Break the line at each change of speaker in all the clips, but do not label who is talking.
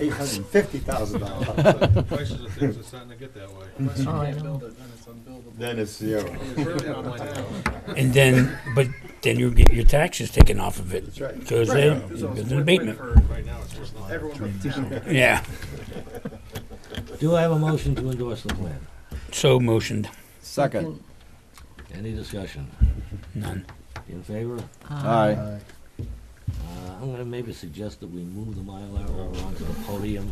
eight hundred and fifty thousand dollars,
Prices of things are starting to get that way.
Unless you can't build it, then it's unbuildable.
then it's zero.
It's really on the town.
And then, but then you get your taxes taken off of it.
That's right.
Because
Right,
then,
so it's
it's an
win-win
abatement.
for
Right now, it's just not.
Everyone in the town.
Yeah,
Do I have a motion to endorse the plan?
so motioned,
Second.
Any discussion?
none.
In favor?
Aye.
Uh, I'm gonna maybe suggest that we move the Mylar over onto the podium,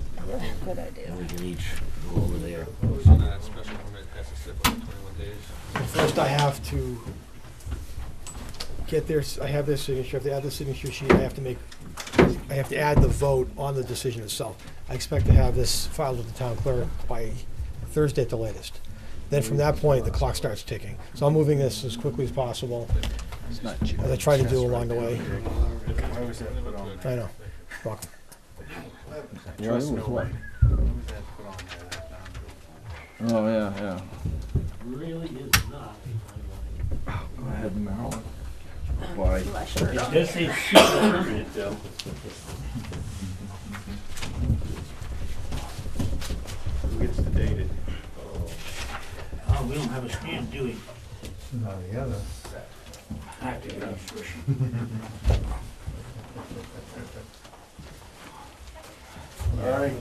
Good idea.
and we can each go over there.
So that special permit has to sit for twenty-one days.
First, I have to get their, s- I have their signature, I have to add the signature sheet, I have to make, I have to add the vote on the decision itself. I expect to have this filed with the town clerk by Thursday at the latest. Then from that point, the clock starts ticking. So I'm moving this as quickly as possible,
It's not cheap.
as I try to do along the way.
Why
I know. Fuck.
You're right, with what? Oh, yeah, yeah.
Really is not.
Go ahead, Marilyn. Why?
It does say special permit, though.
Who gets the dated?
Oh, we don't have a stamp, do we?
All right.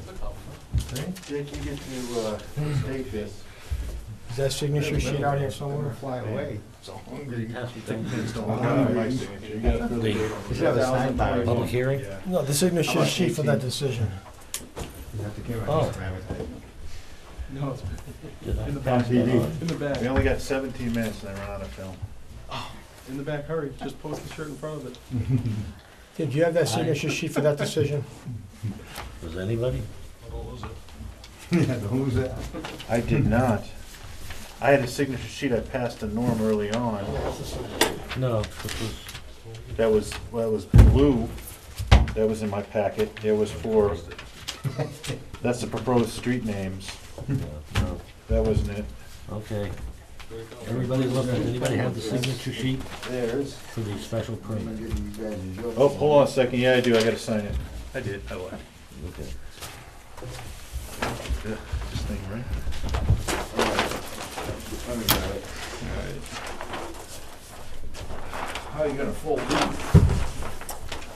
Jake, you get to, uh, take this.
Is that signature sheet out here somewhere?
Fly away. So hungry.
The public hearing?
No, the signature sheet for that decision.
Oh.
No, it's in the back,
TV.
in the back,
only got seventeen minutes and I ran out of film.
in the back, hurry, just post the shirt in front of it.
Did you have that signature sheet for that decision?
Does anybody?
Who's that?
I did not. I had a signature sheet I passed to Norm early on.
No, this was,
That was, well, that was blue. That was in my packet. It was for, that's the proposed street names.
uh, no,
That wasn't it.
okay. Everybody look, does anybody have the signature sheet
There's.
for the special
I'm
permit?
giving you guys yours.
Oh, hold on a second. Yeah, I do. I gotta sign it. I did. I lied.
Okay.
Yeah, This thing, right?
Let me grab it.
How are you gonna fold these?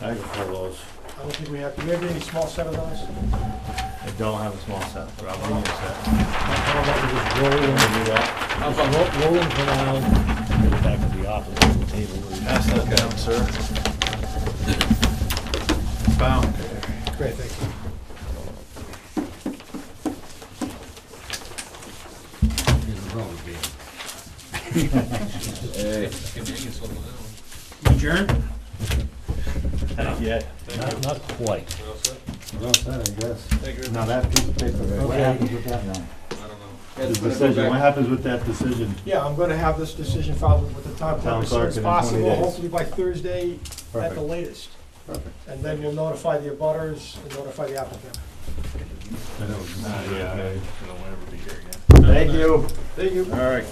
I can fold those.
I don't think we have, do we have any small set of those?
I don't have a small set, but I'll bring you a set.
How about we just roll them, how about ro- roll them around, get it back to the office, on the table, where we-
Pass that down, sir. Bound.
Great, thank you.
Here's the roll again.
Convenience on the island.
Yeah.
Not, not quite.
What else?
Well, that, I guess.
Thank you.
Now that piece of paper there.
What happens with that now?
I don't know.
The decision, what happens with that decision?
Yeah, I'm gonna have this decision filed with the town clerk
Town
as soon
clerk
as
in 20
possible,
days.
hopefully by Thursday at the latest.
Perfect.
And then we'll notify the abutters and notify the applicant.
Thank you. Thank you. All right.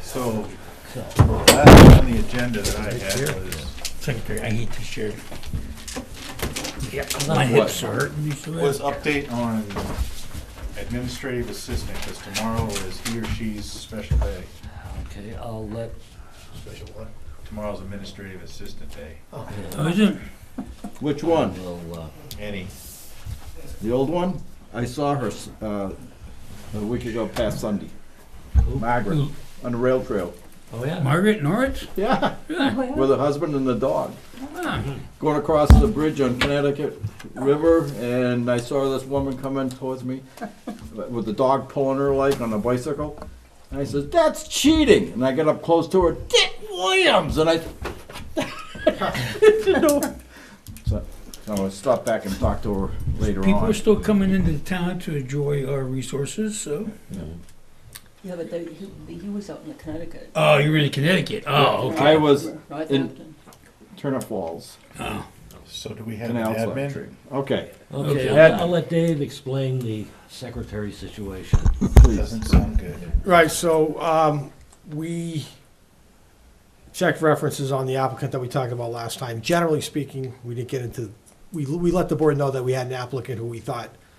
So, last on the agenda that I had was,
Secretary, I hate this chair. Yeah, my hips are hurting, you see
was
that?
update on administrative assistant, because tomorrow is he or she's special day.
Okay, I'll let,
Special one.
Tomorrow's administrative assistant day.
Oh, is it?
Which one?
we'll, uh,
Any,
The old one? I saw her s- uh, a week ago past Sunday. Margaret, on the rail trail.
oh, yeah,
Margaret Norris?
Yeah, with her husband and the dog. Going across the bridge on Connecticut River, and I saw this woman coming towards me with the dog pulling her like on a bicycle. And I says, "That's cheating!" And I get up close to her, Dick Williams, and I didn't know. So, so I stopped back and talked to her later
People
on.
are still coming into the town to enjoy our resources, so.
Yeah, but they, he, he was out in Connecticut.
Oh, you're in Connecticut. Oh, okay.
I was
Northampton.
Turner Falls,
Oh.
so do we have an
Canal
admin?
Factory. Okay,
okay,
Okay.
I'll, I'll let Dave explain the secretary situation.
please.
Doesn't sound good.
Right, so, um, we checked references on the applicant that we talked about last time. Generally speaking, we didn't get into we, we let the board know that we had an applicant who we thought